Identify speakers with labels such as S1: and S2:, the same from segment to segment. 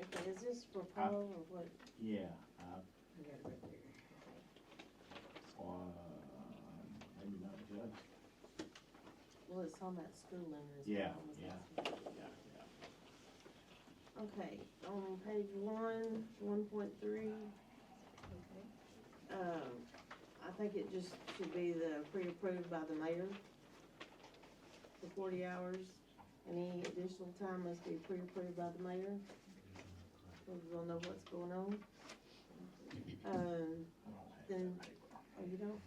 S1: Is this
S2: Uh,
S1: for Paul or what?
S2: Yeah, uh,
S1: I got it right there.
S2: or, uh, maybe not the judge.
S1: Well, it's on that school letter. is what
S2: Yeah,
S1: I was
S2: yeah,
S1: asking.
S2: yeah, yeah.
S1: Okay, on page one, one point three,
S3: Okay.
S1: um, I think it just should be the pre-approved by the mayor for forty hours. Any additional time must be pre-approved by the mayor. So we'll know what's going on. Um,
S2: I don't have
S1: Then-
S2: that paper.
S1: oh, you don't?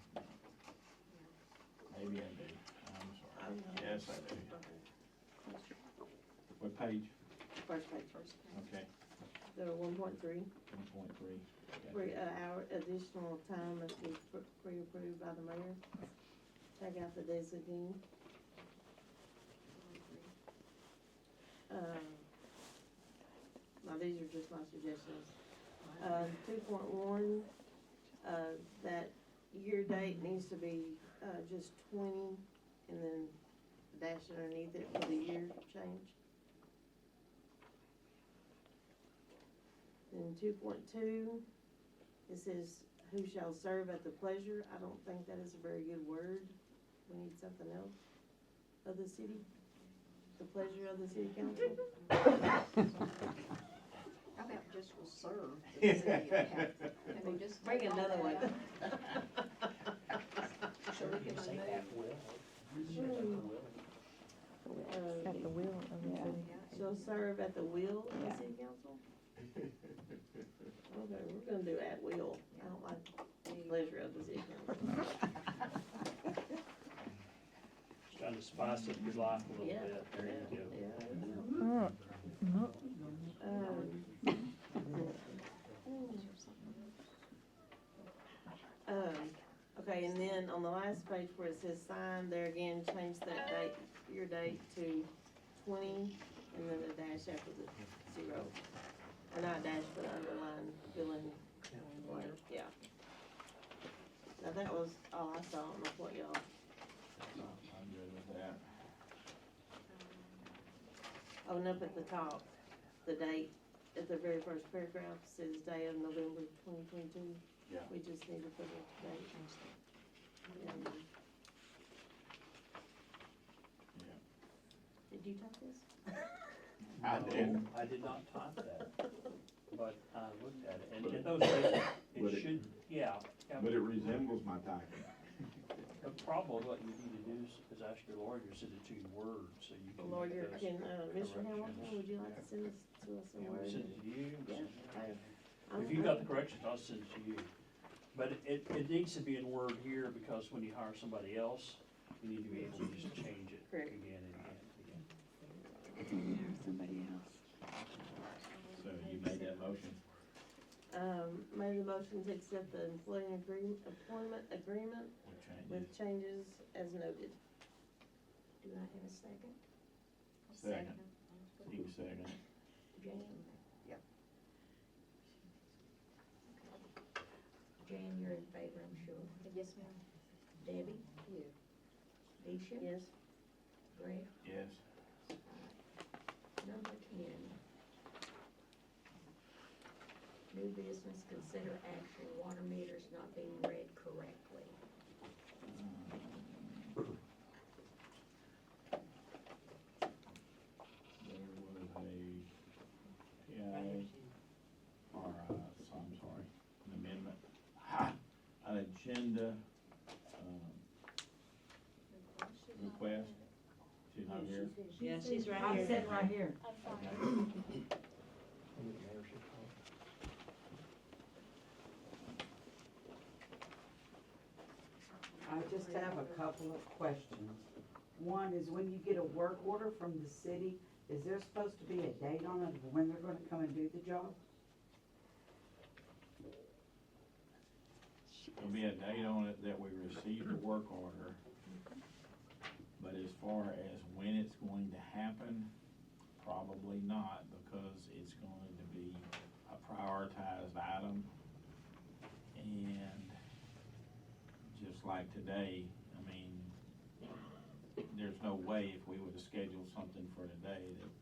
S2: Maybe I do, I'm sorry.
S1: I'm not.
S2: Yes, I do.
S1: Okay,
S2: What page?
S1: First page,
S2: Okay,
S1: the one point three.
S2: one point three.
S1: Three, uh, hour, additional time must be pr- pre-approved by the mayor. Take out the designee. Um, Now, these are just my suggestions. Uh, two point one, uh, that year date needs to be, uh, just twenty, and then dash underneath it for the year change. Then two point two, it says, "Who shall serve at the pleasure?" I don't think that is a very good word. We need something else. Of the city, the pleasure of the city council.
S3: How about just will serve the city of Hackett?
S2: Yeah.
S3: Can we just
S1: Bring
S3: take all
S1: another
S3: that
S1: one.
S3: out? So we can
S4: Say
S3: remove,
S4: that will. Say that will.
S1: Uh,
S5: At the will of the
S3: yeah,
S5: city.
S1: Shall serve at the will of the
S5: Yeah.
S1: city council? Okay, we're gonna do at will. I don't like the pleasure of the city council.
S4: Just Trying to spice up your life a little
S1: Yeah,
S4: bit. There you go.
S1: yeah, yeah.
S5: Mm, mm.
S1: Um, Um, okay, and then on the last page where it says sign, there again, change that date, your date to twenty, and then the dash after the zero. Or not dash, but underline, fill in, blank, yeah. Now, that was all I saw, I don't know what y'all,
S2: I'm good with that.
S1: oh, and up at the top, the date, at the very first paragraph, says day of November twenty twenty-two.
S2: Yeah.
S1: We just need to put the date. And-
S2: Yeah.
S1: Did you type this?
S2: I
S4: No,
S2: did.
S4: I did not type that, but I looked at it, and in those days,
S2: But
S4: it
S2: it-
S4: should, yeah. yeah.
S2: But it resembles my typing.
S4: The problem, what you need to do is- is ask your lawyer to send it to your word, so you can. make
S1: Lawyer,
S4: those-
S1: can, uh, Mr. Hamilton, would you like to send this to us
S4: Yeah, we'll
S1: somewhere?
S4: Send it to you. we'll send it to
S1: Yeah.
S4: you. If you got the corrections, I'll send it to you. But it- it, it needs to be in Word here, because when you hire somebody else, you need to be able to just change it
S1: Correct.
S4: again and again and again.
S5: Somebody else.
S2: So you made that motion?
S1: Um, made the motion to accept the employee agreement, employment agreement
S2: What changes?
S1: with changes as noted.
S3: do I have a second?
S2: Second. You second.
S3: Jane? Yep. Jane, you're in favor, I'm sure. Yes, ma'am. Debbie? Yeah. Deisha?
S1: Yes,
S3: Greg?
S2: Yes.
S3: Number ten. New business, consider action, water meters not being read correctly.
S2: There was a, yeah, or, uh, so I'm sorry, an amendment, uh, ha, an agenda, um, request. She's not here.
S6: Yeah, she's right
S5: I'm
S6: here.
S5: sitting right here.
S6: I'm sorry.
S7: I just have a couple of questions. One is when you get a work order from the city, is there supposed to be a date on it of when they're gonna come and do the job?
S2: There'll be a date on it that we received the work order. But as far as when it's going to happen, probably not, because it's going to be a prioritized item. And just like today, I mean, there's no way if we were to schedule something for today that